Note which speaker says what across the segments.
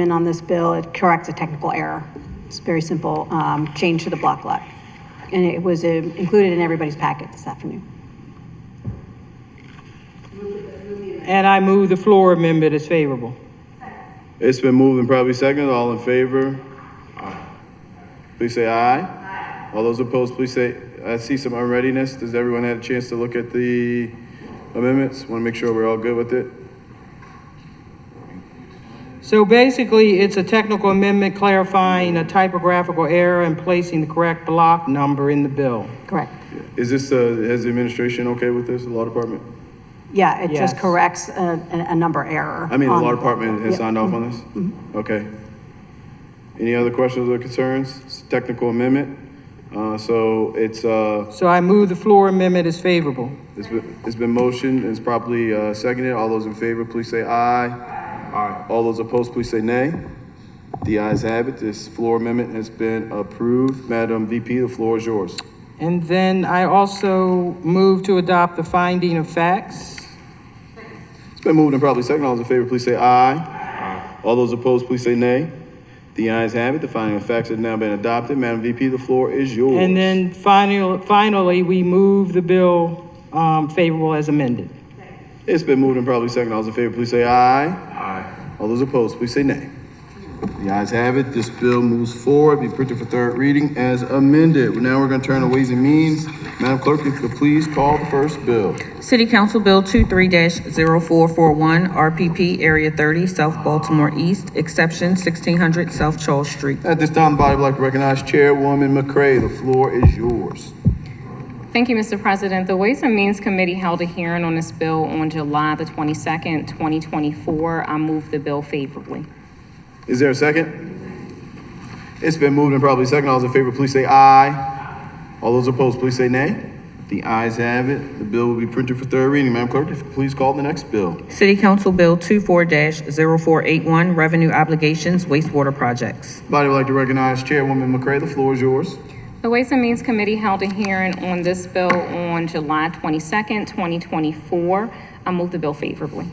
Speaker 1: amendment on this bill, it corrects a technical error. It's very simple, um, change to the block lot. And it was uh, included in everybody's packet this afternoon.
Speaker 2: And I move the floor amendment is favorable.
Speaker 3: It's been moved and probably seconded. All in favor? Please say aye. Aye. All those opposed, please say, I see some unreadiness. Does everyone have a chance to look at the amendments? Want to make sure we're all good with it?
Speaker 2: So basically, it's a technical amendment clarifying a typographical error and placing the correct block number in the bill.
Speaker 1: Correct.
Speaker 3: Is this, uh, is the administration okay with this, the law department?
Speaker 1: Yeah, it just
Speaker 2: Yes.
Speaker 1: corrects a, a a number error.
Speaker 3: I mean, the
Speaker 1: on-
Speaker 3: law department
Speaker 1: Um,
Speaker 3: has
Speaker 1: Yeah.
Speaker 3: signed off on this? Okay. Any other questions or concerns? It's a Technical amendment. Uh, so it's, uh,
Speaker 2: So I move the floor amendment is favorable.
Speaker 3: it's been, it's been motioned and it's properly, uh, seconded. All those in favor, please say aye. Aye. All those opposed, please say nay. The ayes have it. This floor amendment has been approved. Madam VP, the floor is yours.
Speaker 2: And then I also move to adopt the finding of facts.
Speaker 3: It's been moved and probably second. All those in favor, please say aye. Aye. All those opposed, please say nay. The ayes have it. The finding of facts has now been adopted. Madam VP, the floor is yours.
Speaker 2: And then final, finally, we move the bill um, favorable as amended.
Speaker 3: It's been moved and probably second. All those in favor, please say aye. Aye. All those opposed, please say nay. The ayes have it. This bill moves forward, be printed for third reading as amended. Now we're going to turn to Ways and Means. Madam Clerk, if you could please call the first bill.
Speaker 4: City Council Bill 23-0441, RPP Area 30, South Baltimore East, Exception 1600 South Charles Street.
Speaker 3: At this time, the body would like to recognize Chairwoman McCray. The floor is yours.
Speaker 5: Thank you, Mr. President. The Ways and Means Committee held a hearing on this bill on July the 22nd, 2024. I move the bill favorably.
Speaker 3: Is there a second? It's been moved and probably second. All those in favor, please say aye. All those opposed, please say nay. The ayes have it. The bill will be printed for third reading. Madam Clerk, if you could please call the next bill.
Speaker 4: City Council Bill 24-0481, Revenue Obligations Wastewater Projects.
Speaker 3: Body would like to recognize Chairwoman McCray. The floor is yours.
Speaker 5: The Ways and Means Committee held a hearing on this bill on July 22nd, 2024. I move the bill favorably.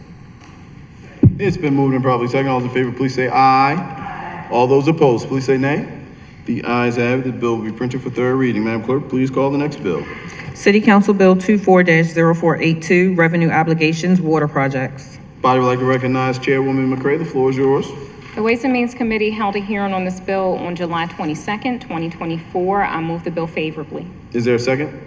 Speaker 3: It's been moved and probably second. All those in favor, please say aye. All those opposed, please say nay. The ayes have it. The bill will be printed for third reading. Madam Clerk, please call the next bill.
Speaker 4: City Council Bill 24-0482, Revenue Obligations Water Projects.
Speaker 3: Body would like to recognize Chairwoman McCray. The floor is yours.
Speaker 5: The Ways and Means Committee held a hearing on this bill on July 22nd, 2024. I move the bill favorably.
Speaker 3: Is there a second?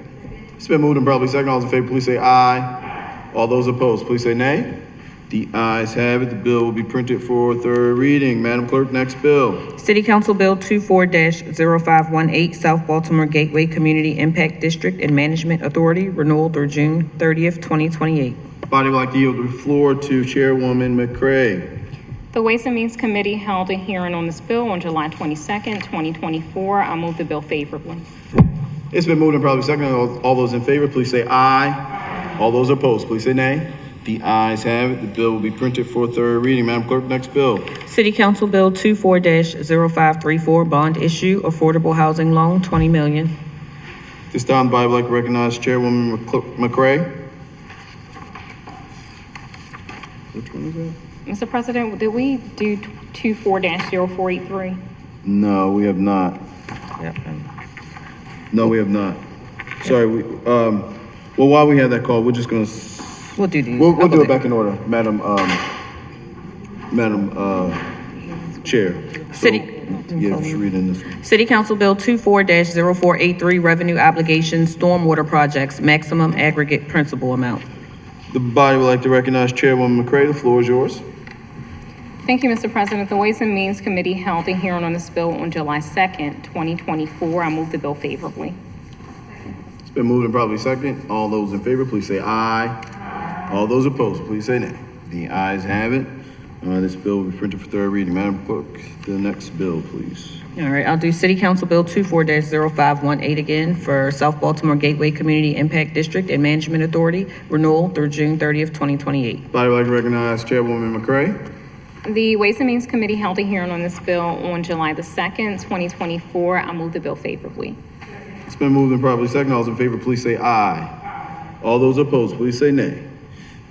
Speaker 3: It's been moved and probably second. All those in favor, please say aye. All those opposed, please say nay. The ayes have it. The bill will be printed for third reading. Madam Clerk, next bill.
Speaker 4: City Council Bill 24-0518, South Baltimore Gateway Community Impact District and Management Authority, renewal through June 30th, 2028.
Speaker 3: Body would like to yield the floor to Chairwoman McCray.
Speaker 5: The Ways and Means Committee held a hearing on this bill on July 22nd, 2024. I move the bill favorably.
Speaker 3: It's been moved and probably second. All all those in favor, please say aye. All those opposed, please say nay. The ayes have it. The bill will be printed for third reading. Madam Clerk, next bill.
Speaker 4: City Council Bill 24-0534, Bond Issue Affordable Housing Loan, 20 million.
Speaker 3: This time, the body would like to recognize Chairwoman McCl- McCray.
Speaker 5: Mr. President, did we do two four dash zero four eight three?
Speaker 3: No, we have not. No, we have not. Sorry, we, um, well, while we have that call, we're just gonna, s-
Speaker 4: We'll do these.
Speaker 3: we'll, we'll do it back in order, Madam, um, Madam, uh, Chair. So,
Speaker 4: City-
Speaker 3: Yeah, just reading this one.
Speaker 4: City Council Bill 24-0483, Revenue Obligations Stormwater Projects, Maximum Aggregate Principal Amount.
Speaker 3: The body would like to recognize Chairwoman McCray. The floor is yours.
Speaker 5: Thank you, Mr. President. The Ways and Means Committee held a hearing on this bill on July second, twenty twenty-four. I move the bill favorably.
Speaker 3: It's been moved and probably second. All those in favor, please say aye. All those opposed, please say nay. The ayes have it. Uh, this bill will be printed for third reading. Madam Clerk, the next bill, please.
Speaker 4: All right, I'll do City Council Bill 24-0518 again for South Baltimore Gateway Community Impact District and Management Authority, renewal through June 30th, 2028.
Speaker 3: Body would like to recognize Chairwoman McCray.
Speaker 5: The Ways and Means Committee held a hearing on this bill on July the second, twenty twenty-four. I move the bill favorably.
Speaker 3: It's been moved and properly second. All those in favor, please say aye. All those opposed, please say nay.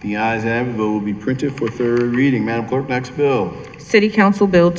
Speaker 3: The ayes have it. Bill will be printed for third reading. Madam Clerk, next bill.
Speaker 4: City Council Bill